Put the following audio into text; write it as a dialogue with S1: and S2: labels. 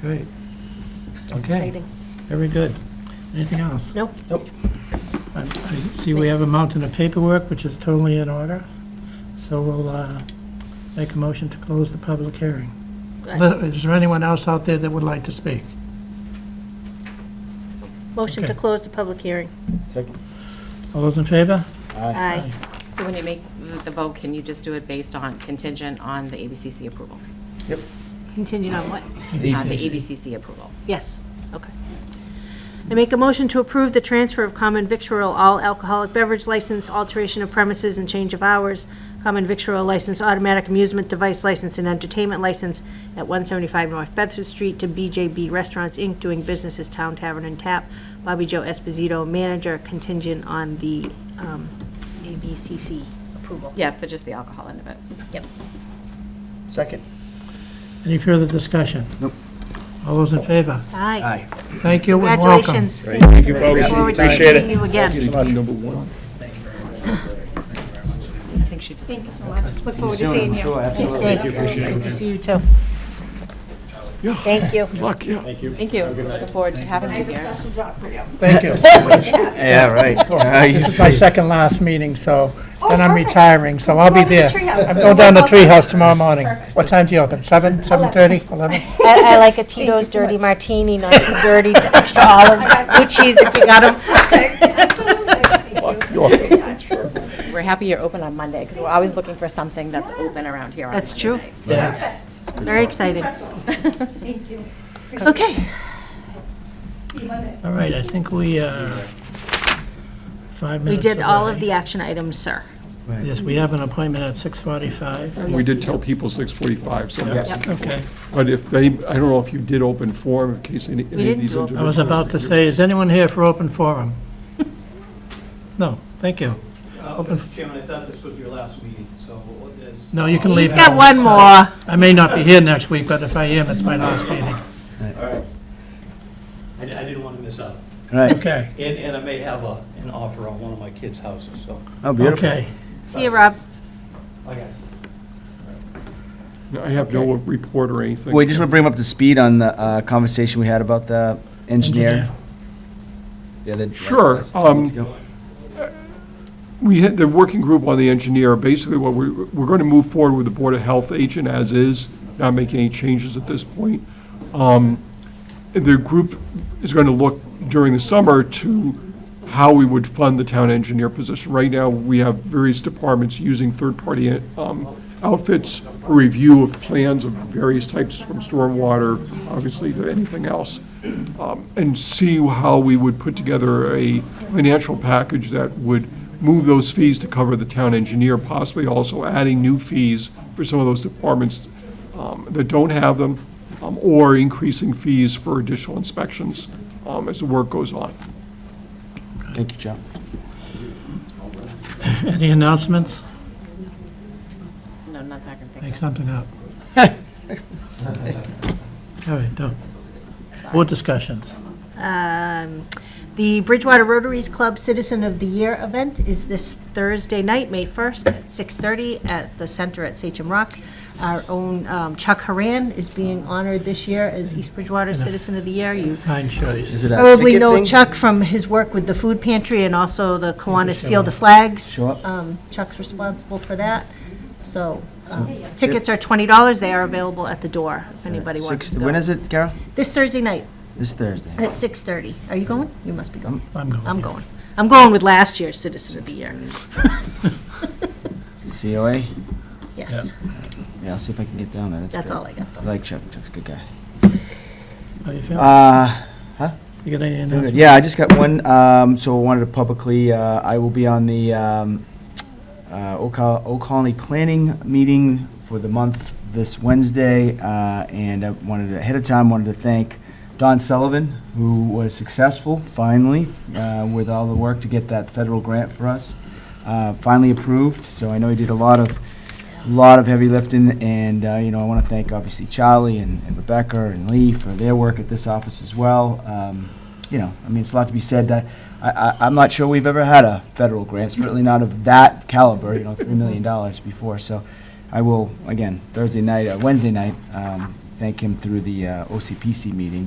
S1: Great. Okay,
S2: Exciting.
S1: very good. Anything else?
S2: Nope.
S1: I I see we have a mountain of paperwork, which is totally in order, so we'll uh, make a motion to close the public hearing.
S2: Uh,
S1: Is there anyone else out there that would like to speak?
S2: Motion to
S1: okay.
S2: close the public hearing.
S3: Second.
S1: All those in favor?
S2: Aye.
S4: So when you make the- the vote, can you just do it based on contingent on the ABCC approval?
S2: Continued on what?
S4: Uh, The ABCC approval.
S2: Yes, okay. I make a motion to approve the transfer of common victual all alcoholic beverage license, alteration of premises and change of hours, common victual license, automatic amusement device license and entertainment license at 175 North Bedford Street to BJB Restaurants, Inc., doing business as Town Tavern and Tap. Bobby Joe Esposito, manager, contingent on the um, ABCC approval.
S4: Yeah, for just the alcohol end of it.
S2: Yep.
S3: Second.
S1: Any further discussion?
S3: Nope.
S1: All those in favor?
S2: Aye.
S1: Thank you and welcome.
S2: Congratulations.
S5: Thank you, folks.
S2: Forward to
S5: Appreciate
S2: seeing
S5: it.
S2: you again.
S3: Number one.
S4: I think she just.
S2: Thank you so much. Look forward to
S3: Soon,
S2: seeing
S3: I'm
S2: you.
S3: sure, absolutely.
S2: Thank you. Nice to see you too. Thank you.
S6: Luck, yeah.
S4: Thank you. Looking forward to having you here.
S1: Thank you.
S3: Yeah,
S1: This is
S3: right.
S1: my second last meeting, so, and I'm
S7: Oh, perfect.
S1: retiring, so I'll be
S7: Come
S1: there.
S7: down to the treehouse.
S1: I'm going down to Treehouse tomorrow morning. What time do you open? Seven, seven-thirty, eleven?
S2: I, I like a Tito's dirty martini, not too dirty, to extra olives, good cheese if you got them.
S4: We're happy you're open on Monday because we're always looking for something that's open around here on
S2: That's
S4: Monday
S2: true.
S4: night.
S1: Yeah.
S2: Very exciting. Okay.
S1: All right, I think we, uh, five
S2: We
S1: minutes
S2: did all of
S1: away.
S2: the action items, sir.
S1: Yes, we have an appointment at six forty-five.
S6: We did tell people 6:45, so,
S1: Okay.
S6: but if they, I don't know if you did open forum in case any any of
S2: didn't
S6: these
S2: do open
S6: individuals.
S1: I was about to say, is anyone here for open forum? No, thank you.
S8: Uh, Mr. Chairman, I thought this was your last meeting, so there's...
S1: No, you can leave.
S2: He's got
S1: now.
S2: one more.
S1: I may not be here next week, but if I am, it's my last meeting.
S8: All right. I I didn't want to miss out.
S3: Right.
S1: Okay,
S8: And, and I may have a, an offer on one of my kids' houses, so...
S3: Oh, beautiful.
S1: okay.
S2: See you, Rob.
S8: Okay.
S6: I have no report or anything.
S3: Wait, just want to bring him up to speed on the uh, conversation we had about the engineer.
S1: Engineer.
S3: the other- like,
S6: Sure,
S3: last two
S6: um,
S3: weeks ago.
S6: We had, the working group on the engineer, basically what we, we're going to move forward with the Board of Health agent as is, not making any changes at this point. Um, The group is going to look during the summer to how we would fund the town engineer position. Right now, we have various departments using third-party um, outfits for review of plans of various types, from stormwater, obviously, to anything else um, and see how we would put together a financial package that would move those fees to cover the town engineer, possibly also adding new fees for some of those departments um, that don't have them, um, or increasing fees for additional inspections um, as the work goes on.
S3: Thank you, John.
S1: Any announcements?
S4: No, not that I can think of.
S1: Make something up. All right, don't. Board discussions.
S2: Um, The Bridgewater Rotaries Club Citizen of the Year event is this Thursday night, May 1st, at 6:30 at the Center at Sachem Rock. Our own um, Chuck Haran is being honored this year as East Bridgewater Citizen of the Year. You
S1: Fine choice.
S3: Is it a
S2: probably
S3: ticket
S2: know
S3: thing?
S2: Chuck from his work with the food pantry and also the Kiwanis Field of Flags.
S3: Show up.
S2: Um, Chuck's responsible for that. So um, tickets are $20. They are available at the door if anybody wants
S3: Six-
S2: to
S3: When
S2: go.
S3: is it, Carol?
S2: This Thursday night
S3: This Thursday.
S2: at 6:30. Are you going? You must be going.
S1: I'm going.
S2: I'm going. I'm going with last year's Citizen of the Year.
S3: COA?
S2: Yes,
S3: Yeah, I'll see if I can get down there.
S2: that's
S3: great.
S2: all I got.
S3: I like Chuck. Chuck's a good guy.
S1: How you feeling?
S3: Uh,
S1: You got any
S3: Very good.
S1: announcements?
S3: Yeah, I just got one, um, so I wanted to publicly, uh, I will be on the, um, uh, Old Col- Old Colony Planning Meeting for the month this Wednesday, uh, and I wanted to, ahead of time, wanted to thank Don Sullivan, who was successful, finally, uh, with all the work to get that federal grant for us, uh, finally approved, so I know he did a lot of, lot of heavy lifting, and, uh, you know, I want to thank, obviously, Charlie and and Rebecca and Lee for their work at this office as well, um, you know, I mean, it's a lot to be said. I, I, I'm not sure we've ever had a federal grant, certainly not of that caliber, you know, $3 million before. So I will, again, Thursday night, uh, Wednesday night, um, thank him through the uh, OCPC meeting,